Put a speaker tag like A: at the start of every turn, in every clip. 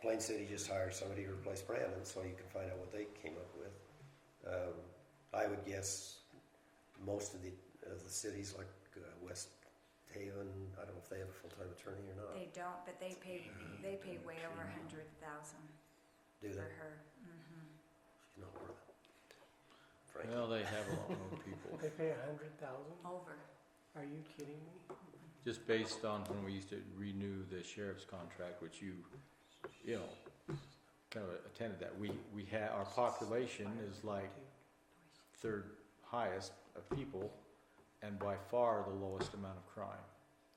A: Plain City just hired somebody to replace Brandon, so you can find out what they came up with. Um, I would guess most of the, of the cities like uh, West Haven, I don't know if they have a full-time attorney or not,
B: They don't, but they pay, they pay way over a hundred thousand
A: do
B: for
A: they?
B: her. Mhm.
A: She's not worth it. Frankly.
C: Well, they have a lot more people,
D: They pay a hundred thousand?
B: Over.
D: Are you kidding me?
C: just based on when we used to renew the sheriff's contract, which you, you know, kind of attended that. We, we had, our population is like third highest of people and by far the lowest amount of crime.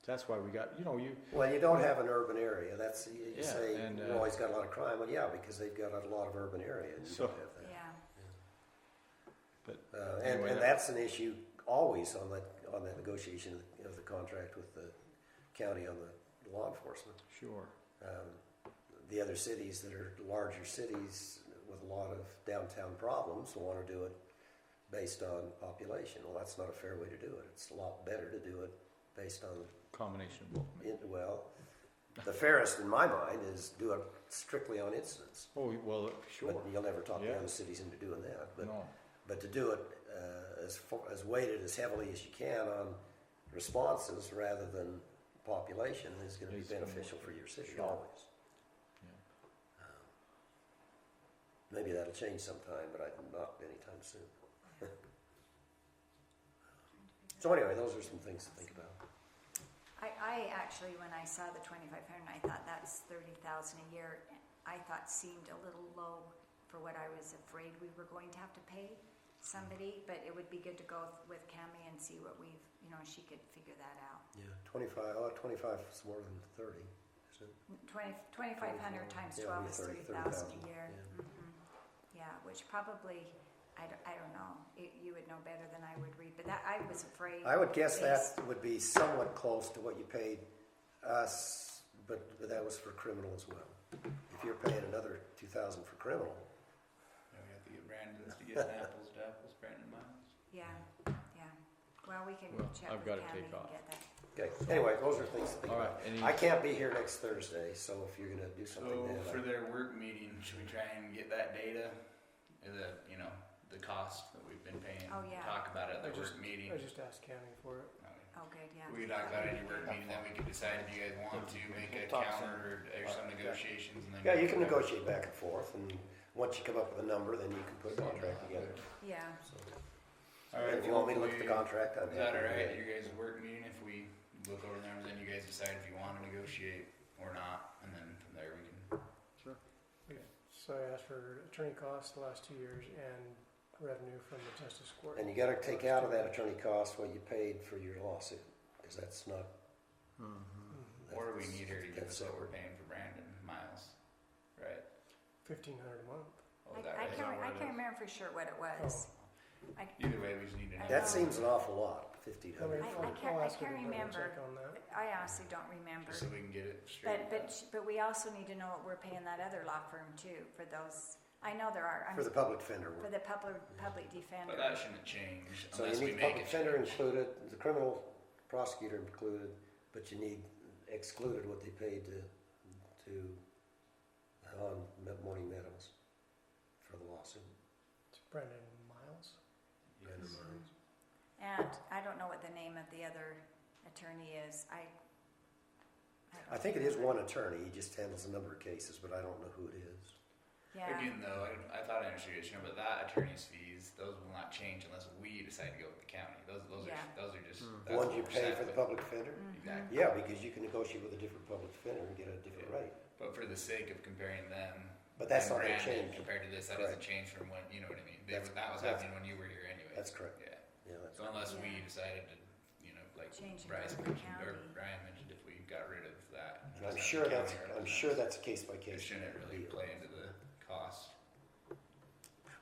C: That's why we got, you know, you,
A: Well, you don't have an urban area. That's you you
C: Yeah,
A: say
C: and,
A: you
C: uh,
A: always got a lot of crime. Well, yeah, because they've got a lot of urban area. And you
C: So-
A: don't have that.
B: Yeah,
C: but
A: Uh, and,
C: Anyway,
A: and
C: that-
A: that's an issue always on that on that negotiation of the contract with the county on the law enforcement.
C: sure.
A: Um, the other cities that are larger cities with a lot of downtown problems want to do it based on population. Well, that's not a fair way to do it. It's a lot better to do it based on
C: Combination of both.
A: It, well, the fairest in my mind is do it strictly on incidents.
C: Oh, well, sure.
A: But you'll never talk the
C: Yeah.
A: other cities into doing that. But,
C: No,
A: but to do it uh, as, fo- as weighted as heavily as you can on responses rather than population is going to be
C: It's gonna
A: beneficial
C: work.
A: for your city
C: Sure.
A: always. Um, Maybe that'll change sometime, but I not anytime soon. so anyway, those are some things to think about.
B: I, I actually, when I saw the twenty-five hundred, I thought that's thirty thousand a year. I thought seemed a little low for what I was afraid we were going to have to pay somebody, but it would be good to go with Cammy and see what we've, you know, she could figure that out.
A: Yeah, 25, oh, 25 is more than 30, isn't it?
B: Twenty, twenty-five hundred times
A: Yeah,
B: twelve
A: it'd
B: is
A: be 30,
B: thirty thousand a
A: 30,000,
B: year. Mhm. Yeah, which probably, I don't, I don't know, It- you would know better than I would read, but that, I was afraid.
A: I would guess
B: based-
A: that would be somewhat close to what you paid us, but that was for criminal as well. If you're paying another 2,000 for criminal,
E: Now we have to get Brandon to get an apples to apples, Brandon Miles.
B: Yeah, yeah. Well, we can
C: Well,
B: check
C: I've
B: with
C: gotta
B: Tammy
C: take
B: and
C: off.
B: get that.
A: okay, anyway, those are things to think
C: All right,
A: about.
C: any-
A: I can't be here next Thursday, so if you're gonna do
E: So
A: something then, uh, I-
E: for their work meeting, should we try and get that data? Uh, The, you know, the cost that we've been paying.
B: Oh, yeah.
E: Talk about it at
D: I
E: the
D: just-
E: work meeting.
D: I just asked county for it.
E: Okay.
B: Oh, good, yeah.
E: We can talk about it at your work meeting, then we can decide if you guys want to make a counter or, or some negotiations and then.
A: yeah, you can
E: we
A: negotiate back and forth, and once you come up with a number, then you can put a contract together.
B: Yeah,
A: So,
E: All right,
A: If you want me to look at the
E: hopefully-
A: contract, I'm happy
E: Is that
A: to
E: all
A: do
E: right
A: that.
E: at your guys' work meeting? If we look over the numbers, then you guys decide if you want to negotiate or not, and then from there we can.
D: So I asked for attorney costs the last two years and revenue from the justice court.
A: And you gotta take out of that attorney cost what you paid for your lawsuit, because that's not.
E: Or Mm-hmm. we need her to give
A: that's
E: us what
A: separate.
E: we're paying for Brandon Miles, right?
D: Fifteen hundred a month.
E: Oh,
B: I,
E: that
B: I
E: is
B: can't, re- I
E: not what it
B: can't
E: is.
B: remember for sure what it was. I,
E: Either way, we just need to know.
A: That seems an awful lot, fifteen
D: I
A: hundred.
D: mean,
B: I
D: for-
B: can't-
D: I'll
B: I
D: ask her
B: can't
D: to double
B: remember.
D: Check on that.
B: I honestly don't remember.
E: Just so we can get it straight.
B: But, but, sh- but we also need to know what we're paying that other law firm too, for those, I know there are, I'm,
A: For the public defender
B: for
A: work.
B: the public, public
E: But
B: defender.
E: that shouldn't change
A: So you
E: unless we
A: need public
E: make it
A: defender
E: change.
A: included, the criminal prosecutor included, but you need excluded what they paid to, to, on Me- Morning Meadows for the lawsuit.
D: It's Brendan Miles.
A: Brandon Murray.
B: And I don't know what the name of the other attorney is, I.
A: I
B: don't
A: think it is one attorney, he just handles a number of cases, but I don't know who it is.
B: Yeah,
E: Again, though, I, I thought I understood you, but that attorney's fees, those will not change unless we decide to go with the county. Those, those
B: Yeah.
E: are, those are just.
A: The
E: that's
A: one
E: what
A: you
E: we're
A: pay
E: set
A: for the
E: with.
A: public defender?
B: Mm-hmm.
E: Exactly.
A: Yeah, because you can negotiate with a different public defender and get a different
E: Yeah.
A: rate.
E: But for the sake of comparing them.
A: But that's
E: and
A: not gonna
E: Brandon
A: change.
E: Compared to this, that
A: Correct.
E: doesn't change from when, you know what I mean? That,
A: That's-
E: that was
A: that's-
E: happening when you were here anyway.
A: That's correct.
E: Yeah.
A: Yeah, that's
E: So unless we
B: Yeah.
E: decided to, you know, like
B: Change it
E: Bryce
B: to
E: mentioned, or
B: county.
E: Brian mentioned, if we got rid of that.
A: And I'm
E: just
A: sure
E: have the
A: that's,
E: county
A: I'm
E: represent
A: sure
E: us,
A: that's a case by
E: It
A: case.
E: shouldn't really play into the cost.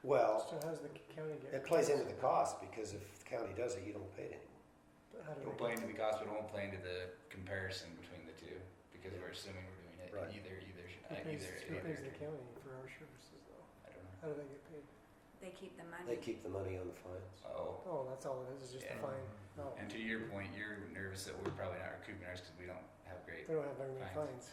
A: Well,
D: So how's the county
A: it
D: get?
A: plays into the cost because if the county does it, you don't pay it anymore.
D: How do they
E: It'll play
D: get?
E: into the cost, but it won't play into the comparison between the two, because we're assuming we're doing it
A: Right.
E: either, either, sh-
D: Who
E: uh,
D: pays,
E: either,
D: who pays
E: either.
D: the county for our services though?
E: I don't know.
D: How do they get paid?
B: they keep the
A: They
B: money.
A: keep the money on the fines.
E: Oh.
D: Oh, that's all it is, is just a
E: Yeah.
D: fine. Oh,
E: And to your point, you're nervous that we're probably not recouping ours because we don't have great
D: they don't have very many
E: Fines.
D: fines.